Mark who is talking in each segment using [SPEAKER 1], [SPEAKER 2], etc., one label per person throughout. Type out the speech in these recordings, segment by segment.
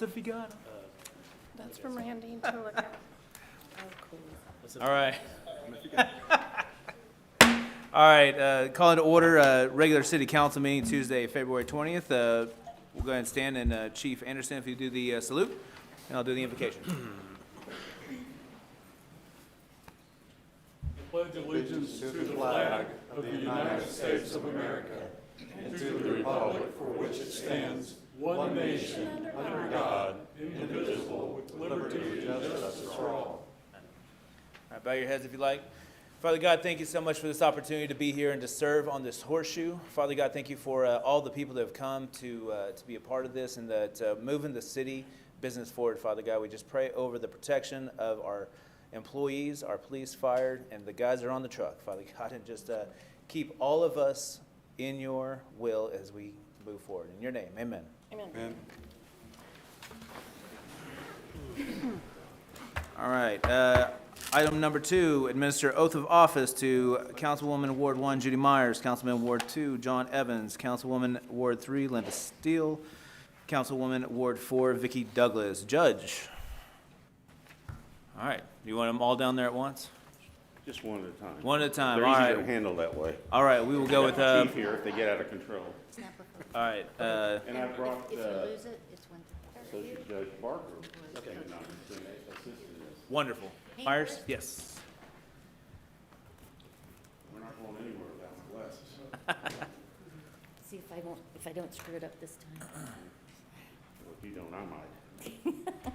[SPEAKER 1] if you got 'em.
[SPEAKER 2] That's from Randy to look at.
[SPEAKER 1] All right. All right, uh, call into order, uh, regular city council meeting Tuesday, February 20th. Uh, We'll go ahead and stand, and uh, Chief Anderson, if you do the uh, salute, and I'll do the invocation. All right, Uh, bow your heads if you like. Father God, thank you so much for this opportunity to be here and to serve on this horseshoe. Father God, thank you for uh, all the people that have come to uh, to be a part of this and that uh, moving the city business forward. Father God, we just pray over the protection of our employees, our police, fire, and the guys that are on the truck. Father God, and just uh, keep all of us in your will as we move forward. In your name, Amen.
[SPEAKER 2] Amen.
[SPEAKER 1] All right, uh, item number two, administer oath of office to Councilwoman Ward One Judy Myers, Councilman Ward Two John Evans, Councilwoman Ward Three Linda Steele, Councilwoman Ward Four Vicky Douglas. Judge. All right, you want them all down there at once?
[SPEAKER 3] Just one at a time.
[SPEAKER 1] One at a time,
[SPEAKER 3] They're
[SPEAKER 1] all
[SPEAKER 3] easier to
[SPEAKER 1] right.
[SPEAKER 3] handle that way.
[SPEAKER 1] All right, we will go with, uh,
[SPEAKER 3] Chief here if they get out of control.
[SPEAKER 1] all right, uh,
[SPEAKER 3] And I brought,
[SPEAKER 4] If you
[SPEAKER 3] uh,
[SPEAKER 4] lose it, it's one thing.
[SPEAKER 3] Associate Judge Barker.
[SPEAKER 1] wonderful. Myers, yes.
[SPEAKER 3] We're not going anywhere without glasses.
[SPEAKER 4] See if I won't, if I don't screw it up this time.
[SPEAKER 3] Well, if you don't, I might.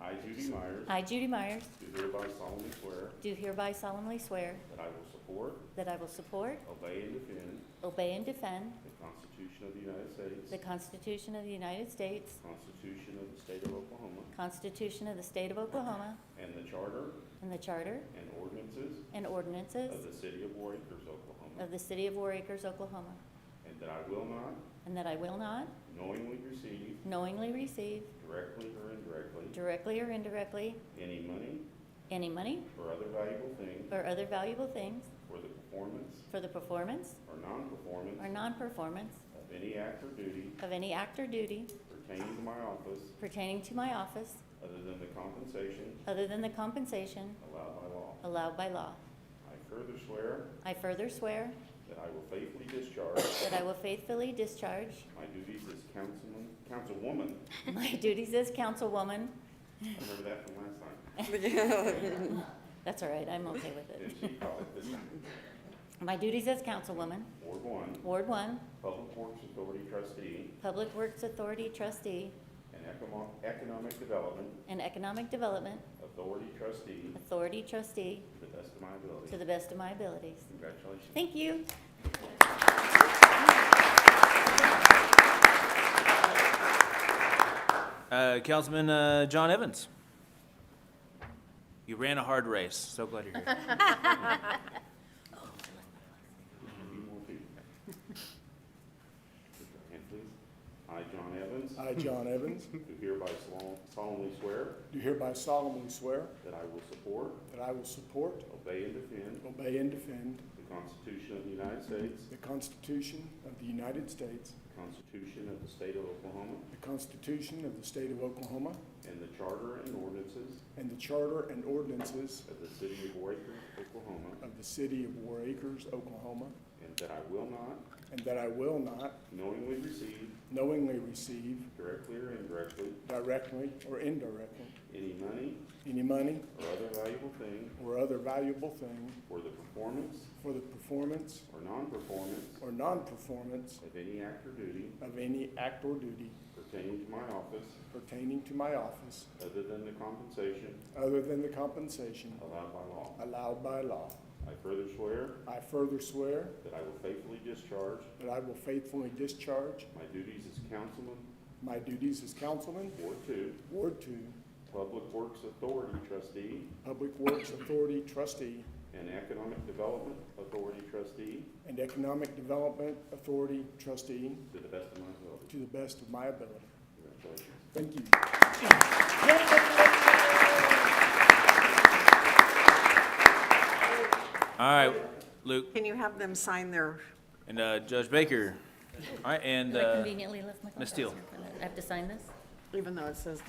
[SPEAKER 3] I, Judy Myers,
[SPEAKER 4] I, Judy Myers,
[SPEAKER 3] do hereby solemnly swear
[SPEAKER 4] do hereby solemnly swear
[SPEAKER 3] that I will support,
[SPEAKER 4] that I will support,
[SPEAKER 3] obey, and defend
[SPEAKER 4] obey, and defend
[SPEAKER 3] the Constitution of the United
[SPEAKER 4] the
[SPEAKER 3] States,
[SPEAKER 4] Constitution of the United States,
[SPEAKER 3] the Constitution of the State of Oklahoma,
[SPEAKER 4] Constitution of the State of Oklahoma,
[SPEAKER 3] and the Charter
[SPEAKER 4] and the Charter
[SPEAKER 3] and ordinances
[SPEAKER 4] and
[SPEAKER 3] of
[SPEAKER 4] ordinances
[SPEAKER 3] the City of War Acres, Oklahoma,
[SPEAKER 4] of the City of War Acres, Oklahoma,
[SPEAKER 3] and that I will not
[SPEAKER 4] and that I will not
[SPEAKER 3] knowingly receive
[SPEAKER 4] knowingly receive,
[SPEAKER 3] directly or indirectly,
[SPEAKER 4] directly or indirectly,
[SPEAKER 3] any money
[SPEAKER 4] any money
[SPEAKER 3] or other valuable thing
[SPEAKER 4] or other valuable things
[SPEAKER 3] for the performance
[SPEAKER 4] for the performance
[SPEAKER 3] or non-performance
[SPEAKER 4] or non-performance
[SPEAKER 3] of any act or duty
[SPEAKER 4] of any act or duty
[SPEAKER 3] pertaining to my office
[SPEAKER 4] pertaining to my office
[SPEAKER 3] other than the compensation
[SPEAKER 4] other than the compensation
[SPEAKER 3] allowed by law.
[SPEAKER 4] allowed by law.
[SPEAKER 3] I further swear
[SPEAKER 4] I further swear
[SPEAKER 3] that I will faithfully discharge
[SPEAKER 4] that I will faithfully discharge
[SPEAKER 3] my duties as councilman, councilwoman,
[SPEAKER 4] my duties as councilwoman.
[SPEAKER 3] I remember that from last time,
[SPEAKER 4] That's all right, I'm okay with it.
[SPEAKER 3] didn't she call it this time?
[SPEAKER 4] My duties as councilwoman,
[SPEAKER 3] Ward one,
[SPEAKER 4] Ward One,
[SPEAKER 3] Public Works Authority trustee
[SPEAKER 4] Public Works Authority trustee
[SPEAKER 3] and Ecomo- Economic Development
[SPEAKER 4] and Economic Development
[SPEAKER 3] Authority trustee
[SPEAKER 4] Authority trustee
[SPEAKER 3] to the best of my
[SPEAKER 4] to
[SPEAKER 3] ability.
[SPEAKER 4] the best of my abilities.
[SPEAKER 3] Congratulations.
[SPEAKER 4] Thank you.
[SPEAKER 1] Uh, Councilman uh, John Evans. You ran a hard race, so glad you're here.
[SPEAKER 3] And please, I, John Evans,
[SPEAKER 5] I, John Evans,
[SPEAKER 3] do hereby sol- solemnly swear
[SPEAKER 5] do hereby solemnly swear
[SPEAKER 3] that I will support,
[SPEAKER 5] that I will support,
[SPEAKER 3] obey, and defend
[SPEAKER 5] obey, and defend
[SPEAKER 3] the Constitution of the United States,
[SPEAKER 5] the Constitution of the United States,
[SPEAKER 3] the Constitution of the State of Oklahoma,
[SPEAKER 5] the Constitution of the State of Oklahoma,
[SPEAKER 3] and the Charter and ordinances
[SPEAKER 5] and the Charter and ordinances
[SPEAKER 3] of the City of War Acres, Oklahoma,
[SPEAKER 5] of the City of War Acres, Oklahoma,
[SPEAKER 3] and that I will not
[SPEAKER 5] and that I will not
[SPEAKER 3] knowingly receive,
[SPEAKER 5] knowingly receive,
[SPEAKER 3] directly or indirectly,
[SPEAKER 5] directly or indirectly,
[SPEAKER 3] any money
[SPEAKER 5] any money
[SPEAKER 3] or other valuable thing
[SPEAKER 5] or other valuable thing
[SPEAKER 3] for the performance
[SPEAKER 5] for the performance
[SPEAKER 3] or non-performance
[SPEAKER 5] or non-performance
[SPEAKER 3] of any act or duty
[SPEAKER 5] of any act or duty
[SPEAKER 3] pertaining to my office
[SPEAKER 5] pertaining to my office
[SPEAKER 3] other than the compensation
[SPEAKER 5] other than the compensation
[SPEAKER 3] allowed by law.
[SPEAKER 5] allowed by law.
[SPEAKER 3] I further swear
[SPEAKER 5] I further swear
[SPEAKER 3] that I will faithfully discharge
[SPEAKER 5] that I will faithfully discharge
[SPEAKER 3] my duties as councilman,
[SPEAKER 5] my duties as councilman,
[SPEAKER 3] Ward Two,
[SPEAKER 5] Ward Two,
[SPEAKER 3] Public Works Authority trustee,
[SPEAKER 5] Public Works Authority trustee,
[SPEAKER 3] and Economic Development Authority trustee
[SPEAKER 5] and Economic Development Authority trustee
[SPEAKER 3] to the best of my ability.
[SPEAKER 5] to the best of my ability.
[SPEAKER 3] Congratulations.
[SPEAKER 5] Thank you.
[SPEAKER 1] All right, Luke.
[SPEAKER 6] Can you have them sign their,
[SPEAKER 1] And uh, Judge Baker. All right, and
[SPEAKER 4] I
[SPEAKER 1] uh,
[SPEAKER 4] conveniently left my.
[SPEAKER 1] Ms. Steele.
[SPEAKER 4] I have to sign this?
[SPEAKER 6] even though it says